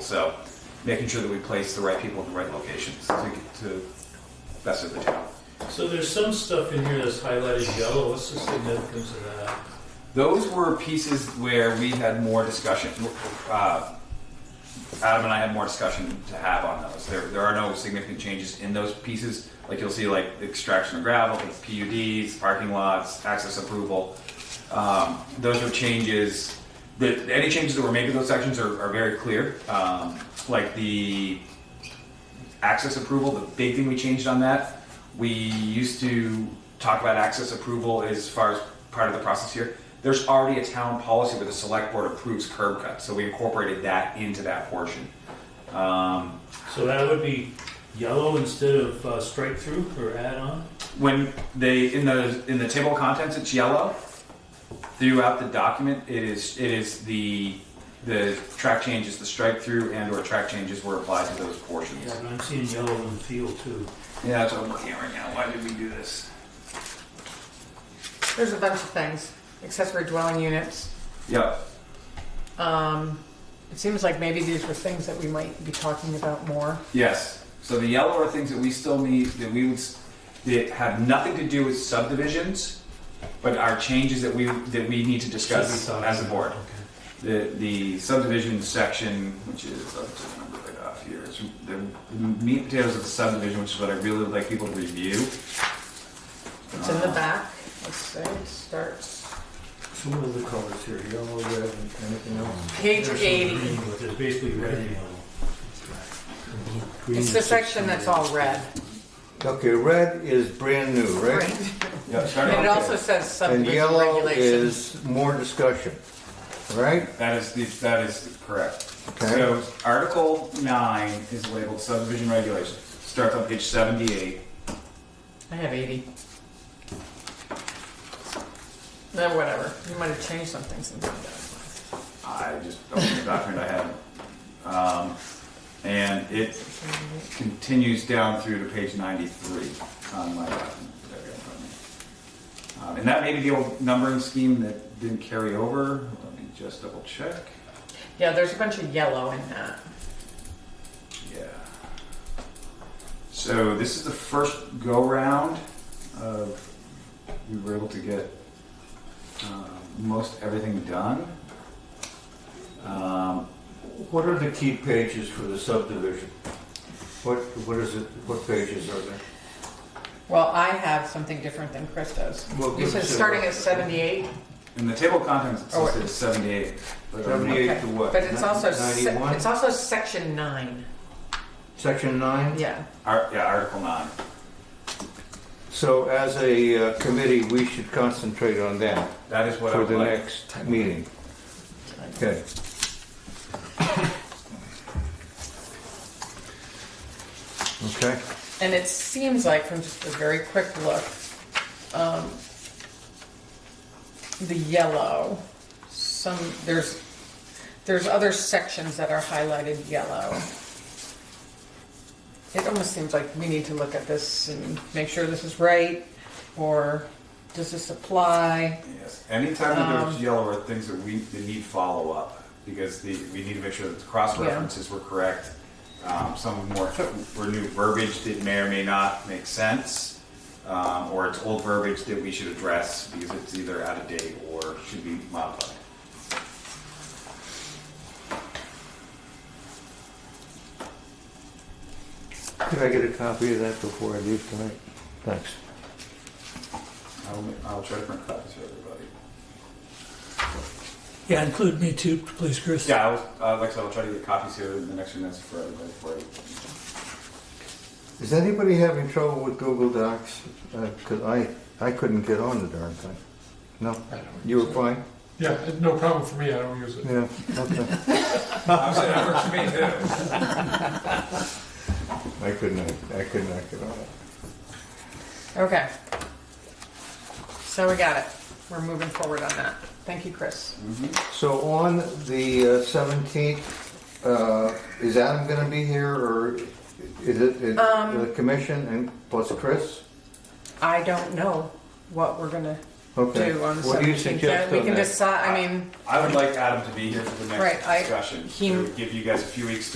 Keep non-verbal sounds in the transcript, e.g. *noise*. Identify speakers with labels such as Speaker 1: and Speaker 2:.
Speaker 1: so making sure that we place the right people in the right locations to, to best of the town.
Speaker 2: So there's some stuff in here that's highlighted yellow. What's the significance of that?
Speaker 1: Those were pieces where we had more discussion. Uh, Adam and I had more discussion to have on those. There, there are no significant changes in those pieces. Like you'll see, like extraction of gravel, PUDs, parking lots, access approval. Um, those are changes. The, any changes that were made to those sections are, are very clear. Um, like the access approval, the big thing we changed on that, we used to talk about access approval as far as part of the process here. There's already a town policy where the select board approves curb cuts, so we incorporated that into that portion. Um,
Speaker 2: So that would be yellow instead of uh, strike through or add on?
Speaker 1: when they in the in the table of contents, it's yellow. Throughout the document, it is it is the the track changes, the strike through, and or track changes were applied to those portions.
Speaker 2: Yeah, and I'm seeing yellow in the field too.
Speaker 1: Yeah, that's what I'm looking at right now. Why did we do this?
Speaker 3: There's a bunch of things. Accessory dwelling units.
Speaker 1: Yep.
Speaker 3: Um, it seems like maybe these were things that we might be talking about more.
Speaker 1: Yes. So the yellow are things that we still need that we would s- that have nothing to do with subdivisions, but are changes that we that we need to discuss
Speaker 2: Should be
Speaker 1: as a board.
Speaker 2: Okay.
Speaker 1: The the subdivision section, which is I'll just number right off here, is the meat and potatoes of the subdivision, which is what I really would like people to review.
Speaker 3: It's in the
Speaker 4: Uh-huh.
Speaker 3: back. Let's say it starts
Speaker 4: So what are the colors here? Yellow, red, and anything else?
Speaker 3: page
Speaker 2: There's some
Speaker 3: 80.
Speaker 2: green, But there's basically red and yellow.
Speaker 3: It's the section that's all red.
Speaker 4: Mm. Okay, red is brand new, right?
Speaker 3: Right.
Speaker 1: Uh, Yeah, starting
Speaker 3: And it
Speaker 1: on-
Speaker 3: also says
Speaker 4: And
Speaker 3: subdivision
Speaker 4: yellow
Speaker 3: regulations.
Speaker 4: is more discussion, right?
Speaker 1: That is the, that is correct.
Speaker 4: Okay.
Speaker 1: So Article nine is labeled subdivision regulations. Starts on page seventy-eight.
Speaker 3: I have 80. No, whatever. You might have changed some things since I
Speaker 1: I just opened the document I had. Um, and it continues down through to page 93 on my document. that I got from you. Um, and that may be the old numbering scheme that didn't carry over. Let me just double check.
Speaker 3: Yeah, there's a bunch of yellow in that.
Speaker 1: Yeah. So this is the first go round of we were able to get uh, most everything done. Um,
Speaker 4: What are the key pages for the subdivision? What, what is it, what pages are there?
Speaker 3: Well, I have something different than Christos.
Speaker 4: Well,
Speaker 3: You
Speaker 4: give
Speaker 3: said
Speaker 4: us a-
Speaker 3: starting at 78.
Speaker 1: In the table of contents, it's
Speaker 3: Oh,
Speaker 1: listed as 78. but I'm not-
Speaker 4: Seventy-eight to what?
Speaker 3: But it's also, se-
Speaker 4: Ninety-one?
Speaker 3: it's also section nine.
Speaker 4: Section nine?
Speaker 3: Yeah.
Speaker 1: Ar- Yeah, Article 9.
Speaker 4: So as a uh, committee, we should concentrate on that
Speaker 1: That is what I
Speaker 4: for
Speaker 1: would
Speaker 4: the
Speaker 1: like.
Speaker 4: next meeting. Okay. Okay.
Speaker 3: And it seems like from just a very quick look, um, the yellow, some, there's, there's other sections that are highlighted yellow. It almost seems like we need to look at this and make sure this is right, or does this apply?
Speaker 1: Yes. Anytime that there's
Speaker 3: Um,
Speaker 1: yellow are things that we that need follow-up, because the, we need to make sure that the cross-references were correct. Um, Some more, were new verbiage that may or may not make sense, um, or it's old verbiage that we should address because it's either out of date or should be modified.
Speaker 4: Could I get a copy of that before I leave tonight? Thanks.
Speaker 1: I'll, I'll try to print copies for everybody.
Speaker 5: Yeah, include me too, please, Chris.
Speaker 1: Yeah, I was, uh, like I said, I'll try to get copies here in the next few minutes for everybody for you.
Speaker 4: Is anybody having trouble with Google Docs? Because I, I couldn't get on the darn thing. No?
Speaker 6: I don't
Speaker 4: You were
Speaker 6: use it.
Speaker 4: fine?
Speaker 6: Yeah, it- no problem for me, I don't use it.
Speaker 4: Yeah, okay.
Speaker 1: I'm saying that works for me too.
Speaker 4: *laughs* I couldn't, I could not get on it.
Speaker 3: Okay. So we got it. We're moving forward on that. Thank you, Chris.
Speaker 4: So on the uh, 17th, uh, is Adam going to be here or is it it-
Speaker 3: Um.
Speaker 4: the commission and plus Chris?
Speaker 3: I don't know what we're gonna
Speaker 4: Okay.
Speaker 3: do on the
Speaker 4: What do you
Speaker 3: seventeenth.
Speaker 4: suggest
Speaker 3: We
Speaker 4: on
Speaker 3: can
Speaker 4: that?
Speaker 3: decide, I mean,
Speaker 1: I would like Adam to be here for the
Speaker 3: Right,
Speaker 1: next
Speaker 3: I-
Speaker 1: discussion.
Speaker 3: he-
Speaker 1: It would Give you guys a few weeks